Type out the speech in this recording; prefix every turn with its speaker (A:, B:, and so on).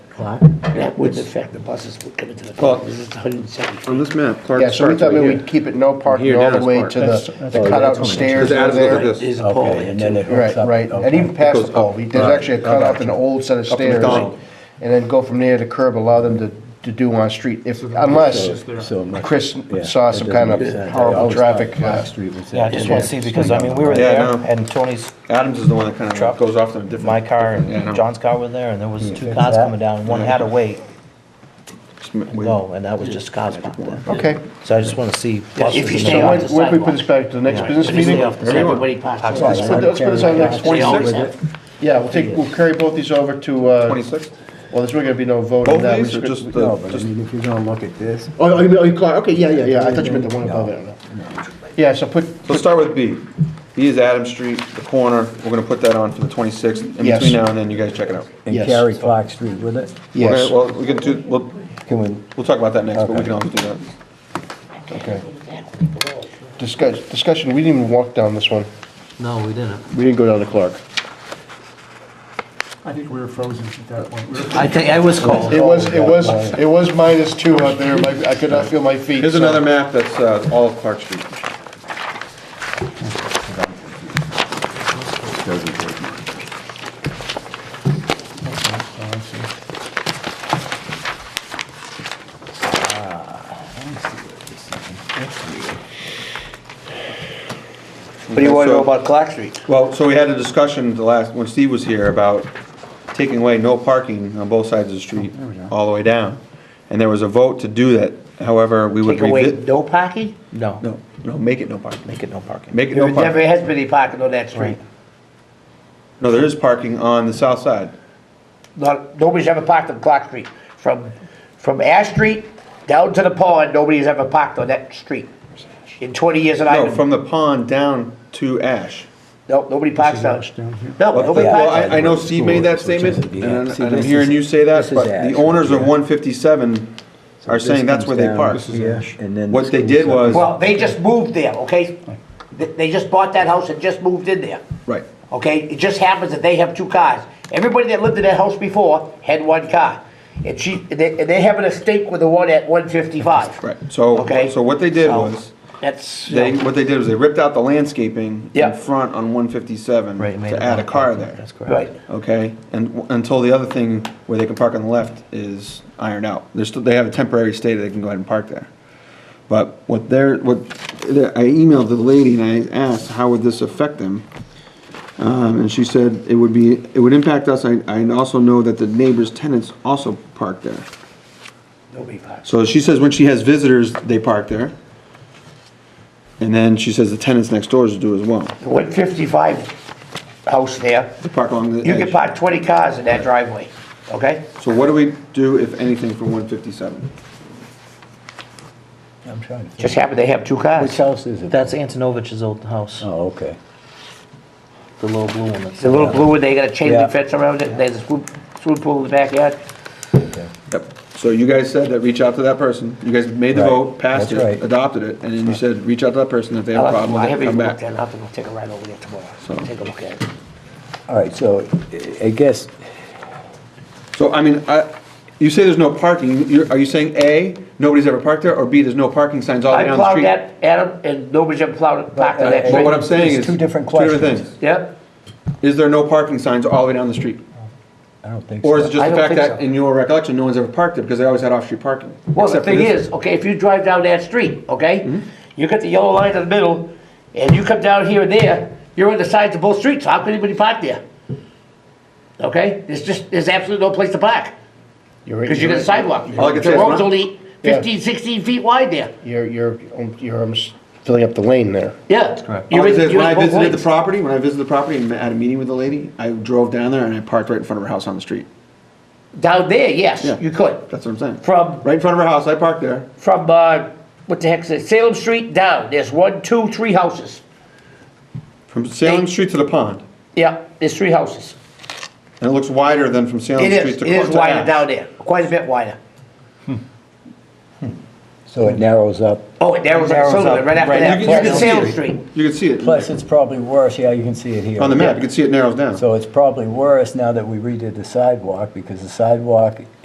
A: Clark?
B: That would affect the buses would come into the
C: Well-
B: park, it's 170.
C: on this map, Clark
D: Yeah, so we
C: starts
D: thought
C: right
D: maybe
C: here.
D: we'd keep it no parking
C: Here,
D: all
C: down
D: the
C: is
D: way
C: park.
D: to
A: That's-
D: the,
A: that's-
D: the
A: oh, that's
D: cutout
A: what it is.
D: stairs
C: Because
D: over
C: Adam's look at
D: there.
C: this.
B: There's a pole
A: Okay, and then
B: there
A: it
B: too.
A: hooks
D: Right,
A: up.
D: right, and even
A: okay.
D: past
C: goes
D: the pole,
C: up.
D: we- there's
C: Right.
D: actually a cutout and an old set of
C: Up to
D: stairs.
C: McDonald.
D: And then go from there to curb, allow them to, to do on street, if, unless
A: So much-
D: Chris
A: yeah,
D: saw
A: that
D: some kind
A: doesn't make
D: of
A: sense.
D: horrible
A: Always
D: traffic.
A: thought
D: uh,
A: Cross Street was
E: Yeah, I just want to see, because, I mean, we were
C: Yeah,
E: there,
C: no.
E: and Tony's,
C: Adams is the one that kind
E: Truck.
C: of goes off in a different.
E: my car
C: Yeah, I know.
E: and John's car were there, and there was two
A: Fix
E: cars
A: that.
E: coming down, and one had to wait
C: Sm-
E: and
C: we-
E: go, and that was just cars parked there.
D: Okay,
E: So I just want to see. buses
B: if you
E: and
B: stay
D: so
E: all
B: off
D: when,
E: that.
B: the
D: when can we put
B: sidewalk.
D: this back to the next business
B: But it's
D: meeting?
B: off the side,
C: Everyone.
B: nobody parks on the
D: Let's
B: side.
D: put, let's put this on the next
B: They always
D: twenty-sixth.
B: have-
D: Yeah, we'll take, we'll carry both these over to, uh,
C: Twenty-six?
D: well, there's really gonna be no vote on
C: Both
D: that. We
C: these or
D: just-
C: just
A: No,
C: the,
A: but I
C: just,
A: mean, if you're gonna look at this,
D: Oh, oh, you mean, oh, you call, okay, yeah, yeah, yeah, I thought you meant the one above it. Yeah, so put,
C: let's start with B. B is Adams Street, the corner, we're gonna put that on for the twenty-sixth, in
D: Yes.
C: between now and then, you guys check it out.
A: and
D: Yes.
A: carry Clark Street with it,
D: yes,
C: Okay, Well, we can do, we'll,
A: can we,
C: we'll talk about that next, but we
A: Okay.
C: can always do that.
D: okay. Discuss, discussion, we didn't even walk down this one.
B: No, we didn't.
D: We didn't go down to Clark.
F: I think we were frozen at that point. We were-
B: I think, I was cold.
D: It was, it was, it was minus two out there, My- I could not feel my feet.
C: Here's
D: so-
C: another map that's, uh, all of Clark Street.
E: What do you want to know
C: So-
E: about Clark Street?
C: Well, so we had a discussion the last, when Steve was here, about taking away no parking on both sides of the
E: Oh,
C: street, all the way down. And there was a vote to do that, however, we would
B: Take away
C: revisit.
B: no parking?
E: No,
C: No, no, make it no parking.
E: make it no parking.
C: Make it
B: There
C: no
B: never
C: parking.
B: has been any parking on that street.
C: No, there is parking on the south side.
B: Not, nobody's ever parked on Clark Street. From, from Ash Street down to the pond, nobody's ever parked on that street. In twenty years that I've
C: No,
B: been,
C: from the pond down to Ash.
B: no, nobody parks down.
F: down here.
B: No,
C: Well,
B: nobody
C: well, I,
B: parks
C: I
B: down.
C: know Steve made that statement, and I'm-
A: See,
C: and I'm
A: this
C: hearing
A: is-
C: you say that,
A: this is
C: but
A: Ash
C: the owners of
A: right here.
C: one fifty-seven are
A: this
C: saying that's where
A: comes
C: they
A: down,
C: park.
A: this is Ash, and then
C: What
A: this
C: they
A: comes
C: did
A: up.
C: was,
B: Well, they just moved there, okay? They, they just bought that house and just moved in there.
C: right,
B: Okay, it just happens that they have two cars. Everybody that lived in that house before had one car. And she, and they, and they having a stake with the one at one fifty-five.
C: right, so,
B: Okay.
C: so what they did
B: So,
C: was,
B: That's,
C: they, what they did was they ripped out the landscaping in
B: Yeah.
C: front on one fifty-seven
E: Right, made it
C: to add a
E: no
C: car
E: parking,
C: there,
E: That's correct.
B: right,
C: okay? And, w- until the other thing where they can park on the left is ironed out. They're still, they have a temporary stay that they can go ahead and park there. But what they're, what, they're- I emailed the lady and I asked, how would this affect them? Um, and she said, it would be, it would impact us, I, I also know that the neighbors' tenants also park there.
B: nobody parks.
C: So she says when she has visitors, they park there. And then she says the tenants next doors do as well,
B: One fifty-five house there,
C: they park along the
B: you can
C: edge.
B: park twenty cars in that driveway, okay?
C: So what do we do, if anything, for one fifty-seven?
A: I'm trying to
B: Just
A: think.
B: happened they have two
A: Which
B: cars.
A: house is it?
E: That's Antonovich's old house,
A: Oh, okay.
E: the little blue one. that's-
B: The little blue one, they got a chain
A: Yeah.
B: link fence around it, there's a swim, swimming pool in the backyard.
C: Yep, so you guys said that, reach out to that person, you guys made the
A: Right.
C: vote, passed
A: That's
C: it,
A: right.
C: adopted it, and then you said, reach out to that person if they have a
B: I'll have to-
C: problem
B: I
C: with it,
B: haven't
C: come
B: even looked
C: back.
B: at it, I'll have to go take a ride over there
C: So-
B: tomorrow, take a look at it.
A: All right, so I- I guess,
C: So, I mean, I, you say there's no parking, you're, are you saying A, nobody's ever parked there, or B, there's no parking signs all the way
B: I
C: down the
B: plowed
C: street?
B: that, Adam, and nobody's ever plowed, it- parked on that
C: But what
B: street.
C: I'm saying
A: There's
C: is.
A: two different questions.
C: things.
B: Yep.
C: Is there no parking signs all the way down the street?
A: I don't think so.
C: Or is it just
B: I
C: the
B: don't
C: fact
B: think
C: that,
B: so.
C: in your recollection, no one's ever parked there because they always had off-street parking?
B: Well, the
C: except for
B: thing
C: this. Mm-hmm.
B: is, okay, if you drive down that street, okay? You got the yellow line in the middle, and you come down here and there, you're on the sides of both streets, how could anybody park there? Okay, there's just, there's absolutely no place to park,
D: You're-
B: because you got a sidewalk.
C: All I can say
B: The
C: is
B: road's
C: when I-
B: only 15, 16 feet wide there,
D: You're, you're, you're um, filling up the lane there.
B: yeah.
C: All
B: You're
C: I can
B: in-
C: say is
B: you're
C: Oh, when I
B: in both
C: visited the
B: lanes.
C: property, when I visited the property and had a meeting with the lady, I drove down there and I parked right in front of her house on the street.
B: Down there,
C: Yeah.
B: yes, you could,
C: That's what I'm saying.
B: from,
C: Right in front of her house, I parked there.
B: from, uh, what the heck's it, Salem Street down, there's one, two, three houses.
C: From Salem
B: Hey.
C: Street to the pond.
B: Yeah, there's three houses.
C: And it looks wider than from Salem
B: It
C: Street
B: is,
C: to.
B: it is
C: to
B: wider
C: Ash.
B: down there, quite a bit wider.
A: So it narrows up.
B: Oh, it narrows up,
E: Narrows
B: so
E: up,
B: right after
E: right.
B: that,
C: You
A: can- you
B: plus
A: can see
B: Salem
C: it.
B: Street.
C: You can see it
A: Plus, it's probably worse, yeah, you can see it here.
C: on the map, you can see it narrows down.
A: So it's probably worse now that we redid the sidewalk, because the sidewalk